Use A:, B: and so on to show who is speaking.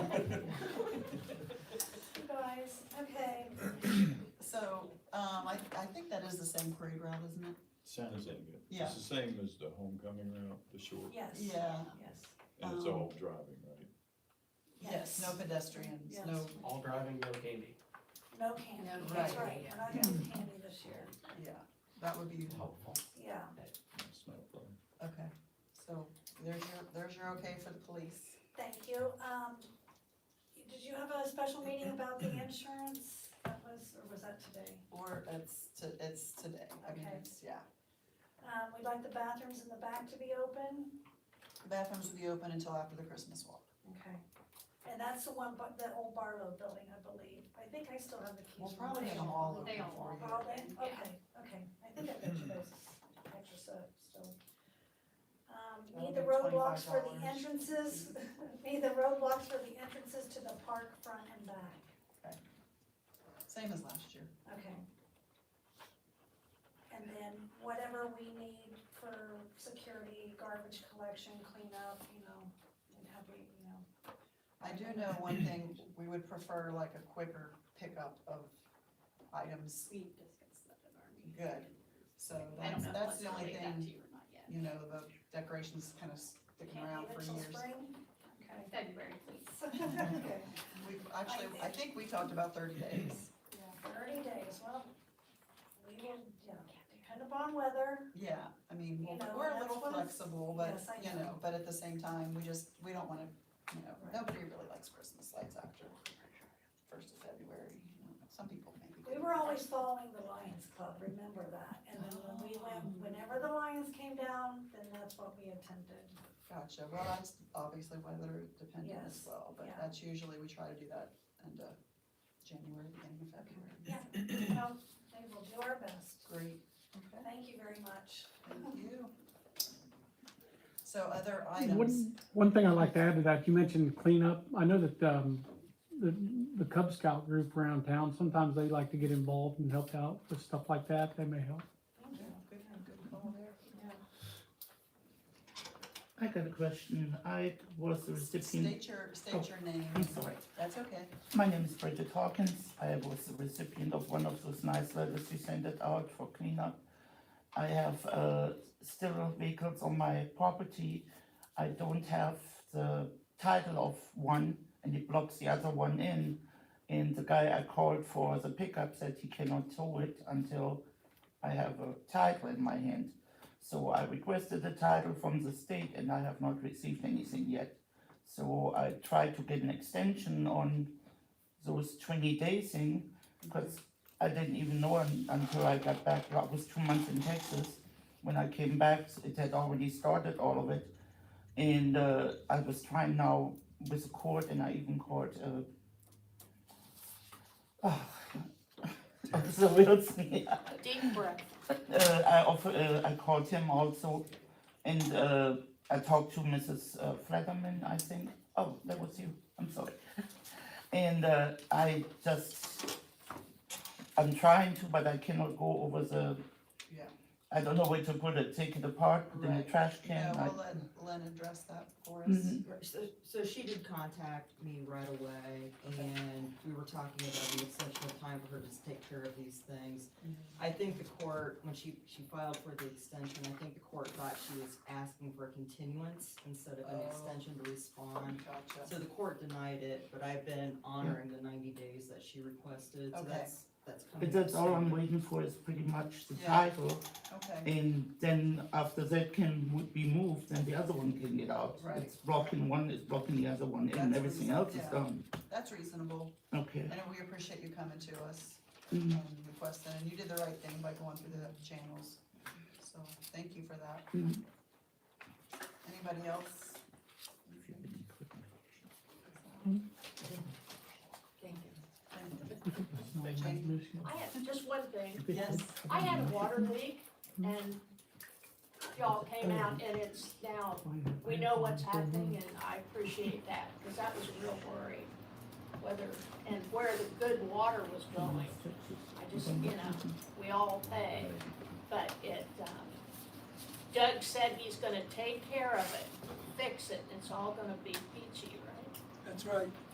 A: um, I, I think that is the same parade route, isn't it?
B: Sounds like it.
A: Yeah.
B: It's the same as the homecoming route, the short,
C: Yes.
A: Yeah.
C: Yes.
B: and it's
A: Um,
B: all driving, right?
C: Yes.
A: No pedestrians,
C: Yes.
A: no,
D: All driving, no gaming.
C: No candy,
E: No
C: that's
A: candy,
C: right,
E: yeah.
C: we're not having candy this year,
A: yeah, that would be helpful,
C: yeah.
B: That's not a problem.
A: okay. So there's your, there's your okay for the police.
C: Thank you. Um, did you have a special meeting about the insurance? That was, or was that today?
A: Or it's, to- it's today, I mean,
C: Okay.
A: it's, yeah.
C: Um, we'd like the bathrooms in the back to be open.
A: The Bathrooms will be open until after the Christmas walk.
C: Okay. And that's the one, bu- the old Barlow building, I believe. I think I still have the keys.
A: We'll
C: from
A: probably
C: there.
A: have them all open
E: They all
A: for you.
C: All in?
E: Yeah.
C: okay, okay, I think I got you those pictures up, so. Um,
A: That'll
C: need the
A: be
C: roadblocks for
A: $25.
C: the entrances, need the roadblocks for the entrances to the park front and back,
A: Same as last year.
C: okay. And then whatever we need for security, garbage collection, cleanup, you know, and have we, you know.
A: I do know one thing, we would prefer like a quicker pickup of items,
E: We discussed that in our meeting.
A: Good. so
E: I don't
A: that's,
E: know if
A: that's
E: that's
A: the only
E: related that to
A: thing,
E: you or not yet.
A: you know, the decorations kind of sticking
C: Can't
A: around
C: leave
A: for
C: it till
A: years.
C: spring? Okay.
E: February, please.
C: Okay.
A: We, actually, I think we talked about thirty days.
C: Yeah, thirty days, well, we will, yeah, depend upon weather,
A: Yeah, I mean,
C: You know,
A: we're a
C: that's
A: little
C: what-
A: flexible, but,
C: Yes, I
A: you know,
C: know.
A: but at the same time, we just, we don't wanna, you know,
C: Right.
A: nobody really likes Christmas lights after first of February, you know, some people maybe.
C: We were always following the Lions Club, remember that, and then when we went, whenever the Lions came down, then that's what we attended.
A: Gotcha, well, that's obviously weather dependent as
C: Yes,
A: well, but
C: yeah.
A: that's usually, we try to do that end of January, beginning of February.
C: Yeah, well, we will do our best,
A: Great, okay,
C: thank you very much.
A: thank you. So other items,
F: One, one thing I'd like to add to that, you mentioned cleanup. I know that, um, the, the Cub Scout group around town, sometimes they like to get involved and help out with stuff like that. They may help.
A: yeah, good, good call there.
G: I got a question. I was the recipient.
A: State your, state your name,
G: Oh, I'm sorry.
A: that's okay,
G: My name is Bridget Hawkins. I was the recipient of one of those nice letters you sent it out for cleanup. I have uh, several vehicles on my property. I don't have the title of one, and it blocks the other one in. And the guy I called for the pickup said he cannot tow it until I have a title in my hand. So I requested the title from the state, and I have not received anything yet. So I tried to get an extension on those twenty days in, because I didn't even know un- until I got back, I was two months in Texas. When I came back, it had already started, all of it, and, uh, I was trying now with the court, and I even called, uh, oh, Officer Wilson,
E: Deep breath.
G: uh, I offer, uh, I called him also, and uh, I talked to Mrs. uh, Flatterman, I think. Oh, that was you. I'm sorry. And uh, I just, I'm trying to, but I cannot go over the.
A: Yeah.
G: I don't know where to put it. Take it apart, put it in the
A: Right.
G: trash
A: yeah,
G: can. I-
A: we'll let Len address that for us.
G: Mhm.
H: Right, So, so she did contact me right away, and we were talking about the extension of time for her to just take care of these things.
A: Mm-hmm.
H: I think the court, when she, she filed for the extension, I think the court thought she was asking for a continuance instead of an
A: Oh.
H: extension to respond. So
A: Gotcha,
H: the court denied it, but I've been honoring the ninety days that she requested, so
A: Okay.
H: that's, that's coming.
G: But that's
H: up
G: all
H: soon.
G: I'm waiting for is pretty much the
A: Yeah.
G: title,
A: okay,
G: and then after that can would be moved, and the other one can get out.
A: Right.
G: It's blocking one, it's blocking the other one, and
A: That's
G: everything
A: reason-
G: else is
A: yeah.
G: done.
A: that's reasonable,
G: Okay.
A: and we appreciate you coming to us
G: Mm.
A: and requesting, and you did the right thing by going through the channels, so thank you for that.
G: Mhm.
A: Anybody else?
G: Mm-hmm.
E: Thank you.
I: I have just one thing.
A: Yes,
I: I had a water leak and y'all came out and it's now, we know what's happening and I appreciate that because that was a real worry. Whether, and where the good water was going. I just, you know, we all pay, but it, um, Doug said he's gonna take care of it, fix it, and it's all gonna be peachy, right?
J: That's right.